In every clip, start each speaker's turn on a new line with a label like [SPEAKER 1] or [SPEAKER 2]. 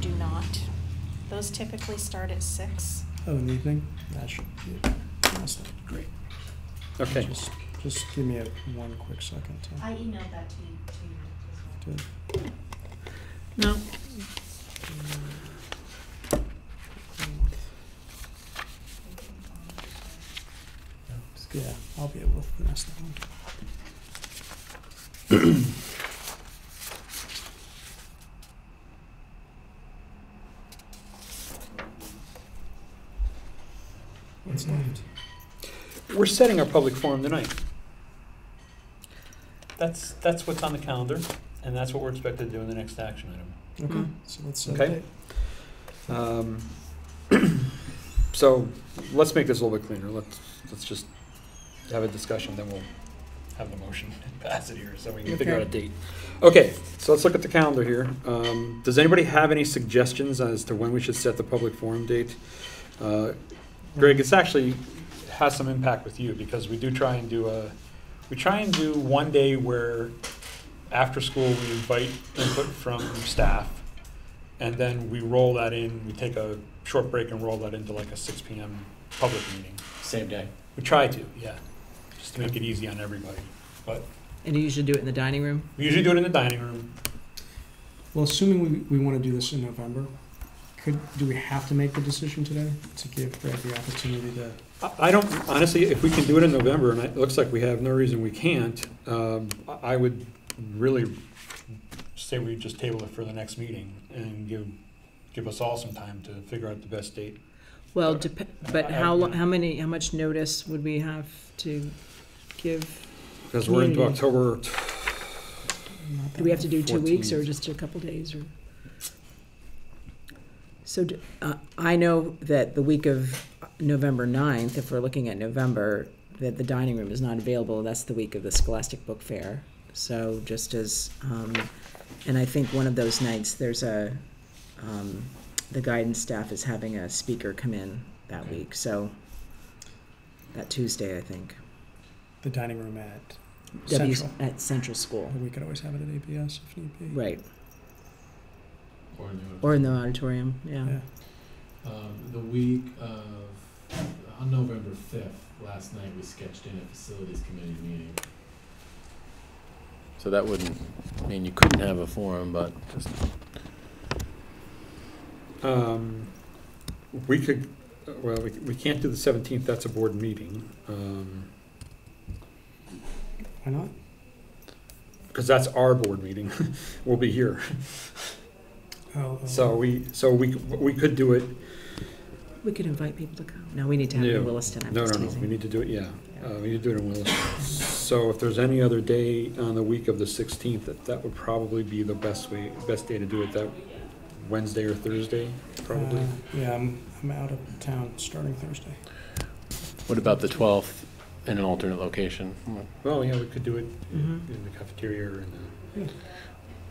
[SPEAKER 1] do not. Those typically start at six.
[SPEAKER 2] Oh, in the evening? That should be, that's not great.
[SPEAKER 3] Okay.
[SPEAKER 2] Just, just give me a, one quick second to.
[SPEAKER 4] I emailed that to you, to you as well.
[SPEAKER 2] to-
[SPEAKER 3] No.
[SPEAKER 2] Yeah, I'll be able to finesse that one. What's left?
[SPEAKER 3] We're setting our public forum tonight.
[SPEAKER 5] That's, that's what's on the calendar, and that's what we're expected to do in the next action item.
[SPEAKER 2] Okay, so let's uh, set a
[SPEAKER 3] Okay.
[SPEAKER 2] date.
[SPEAKER 3] Um, So, let's make this a little bit cleaner, let's, let's just have a discussion, then we'll have the motion and pass it here, so we can figure out a date. Okay, so let's look at the calendar here. Um, Does anybody have any suggestions as to when we should set the public forum date? Uh, Greg, it's actually has some impact with you, because we do try and do a, we try and do one day where after school, we invite input from staff, and then we roll that in, we take a short break and roll that into like a six PM public meeting.
[SPEAKER 6] Same day.
[SPEAKER 3] We try to, yeah, just to make it easy on everybody. But
[SPEAKER 7] And you usually do it in the dining room?
[SPEAKER 3] we usually do it in the dining room.
[SPEAKER 2] Well, assuming we, we want to do this in November, could, do we have to make the decision today to give Greg the opportunity to?
[SPEAKER 3] I, I don't, honestly, if we can do it in November, and it looks like we have no reason we can't, um, I, I would really say we just table it for the next meeting and give, give us all some time to figure out the best date.
[SPEAKER 7] Well,
[SPEAKER 3] Okay.
[SPEAKER 7] dep- but
[SPEAKER 3] I-
[SPEAKER 7] how,
[SPEAKER 3] I-
[SPEAKER 7] lo- how many, how much notice would we have to give?
[SPEAKER 3] Because we're into
[SPEAKER 7] Community.
[SPEAKER 3] October,
[SPEAKER 2] not
[SPEAKER 7] Do we have to do two weeks or
[SPEAKER 3] 14th.
[SPEAKER 7] just a couple days or? So d- uh, I know that the week of November 9th, if we're looking at November, that the dining room is not available. That's the week of the Scholastic Book Fair. So just as, um, and I think one of those nights, there's a, um, the guidance staff is having a speaker come in that week. So that Tuesday, I think.
[SPEAKER 2] The dining room at
[SPEAKER 7] W-
[SPEAKER 2] Central.
[SPEAKER 7] At Central School,
[SPEAKER 2] We could always have it at APS if need be.
[SPEAKER 7] right. Or in the auditorium, yeah.
[SPEAKER 2] Yeah.
[SPEAKER 6] Um, the week of, on November fifth, last night, we sketched in a facilities committee meeting. So that wouldn't mean you couldn't have a forum, but just.
[SPEAKER 3] um, we could, well, we, we can't do the seventeenth, that's a board meeting. Um,
[SPEAKER 2] Why not?
[SPEAKER 3] because that's our board meeting. We'll be here.
[SPEAKER 2] Oh, oh.
[SPEAKER 3] So we, so we, we could do it,
[SPEAKER 7] We could invite people to come. No, we need to have it
[SPEAKER 3] No.
[SPEAKER 7] in Williston after
[SPEAKER 3] no, no, no,
[SPEAKER 7] Tuesday.
[SPEAKER 3] we need to do it, yeah. Uh, we need to do it in Willis. So if there's any other day on the week of the sixteenth, that, that would probably be the best way, best day to do it, that Wednesday or Thursday, probably.
[SPEAKER 2] Uh, yeah, I'm, I'm out of town starting Thursday.
[SPEAKER 6] What about the twelfth in an alternate location?
[SPEAKER 3] Well, yeah, we could do it in
[SPEAKER 7] Mhm.
[SPEAKER 3] in the cafeteria or in the,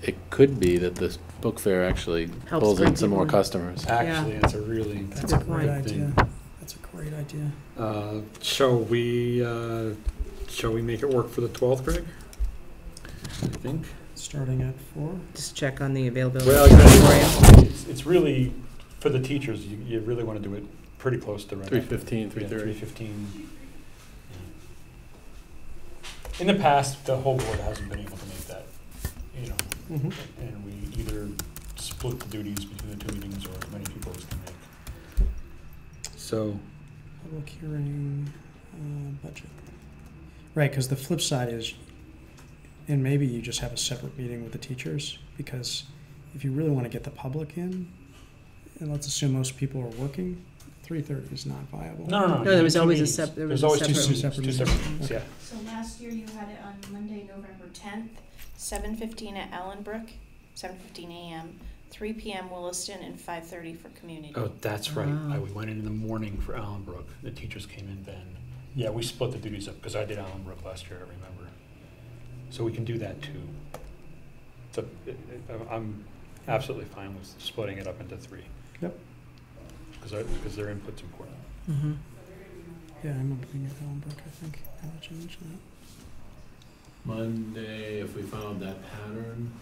[SPEAKER 6] It could be that this book fair actually
[SPEAKER 7] Helps
[SPEAKER 6] pulls in
[SPEAKER 7] bring
[SPEAKER 6] some more
[SPEAKER 7] people in.
[SPEAKER 6] customers.
[SPEAKER 3] actually, it's a really,
[SPEAKER 2] That's
[SPEAKER 7] a
[SPEAKER 2] a
[SPEAKER 7] good
[SPEAKER 2] great
[SPEAKER 3] point.
[SPEAKER 2] idea. That's a great idea.
[SPEAKER 3] uh, shall we, uh, shall we make it work for the twelfth, Greg? I think.
[SPEAKER 2] Starting at four.
[SPEAKER 7] Just check on the availability.
[SPEAKER 3] Well,
[SPEAKER 7] of the auditorium.
[SPEAKER 3] you know, it's, it's really, for the teachers, you, you really want to do it pretty close to right
[SPEAKER 6] Three
[SPEAKER 3] after.
[SPEAKER 6] fifteen, three
[SPEAKER 3] Three
[SPEAKER 6] thirty.
[SPEAKER 3] fifteen. In the past, the whole board hasn't been able to make that, you know,
[SPEAKER 2] Mm-hmm.
[SPEAKER 3] and we either split the duties between the two meetings or as many people as can make. So,
[SPEAKER 2] Public hearing, uh, budget. Right, because the flip side is, and maybe you just have a separate meeting with the teachers, because if you really want to get the public in, and let's assume most people are working, three thirty is not viable.
[SPEAKER 3] no, no, no.
[SPEAKER 7] No, there was
[SPEAKER 3] two
[SPEAKER 7] always a
[SPEAKER 3] meetings.
[SPEAKER 7] sep- there
[SPEAKER 3] There's
[SPEAKER 7] was a
[SPEAKER 3] always two
[SPEAKER 2] separate-
[SPEAKER 3] meetings, Two
[SPEAKER 2] separate
[SPEAKER 3] separate meetings, yeah.
[SPEAKER 4] So last year you had it on Monday, November tenth,
[SPEAKER 1] Seven fifteen at Allenbrook, seven fifteen AM, three PM Williston, and five thirty for community.
[SPEAKER 3] Oh, that's right.
[SPEAKER 7] Ah.
[SPEAKER 3] I, we went in in the morning for Allenbrook. The teachers came in then. Yeah, we split the duties up because I did Allenbrook last year, I remember. So we can do that too. So it- it- I'm absolutely fine with splitting it up into three.
[SPEAKER 2] Yep.
[SPEAKER 3] Because I, because their input's important.
[SPEAKER 7] Mhm.
[SPEAKER 2] Yeah, I remember being at Allenbrook, I think, I would change that.
[SPEAKER 6] Monday, if we found that pattern,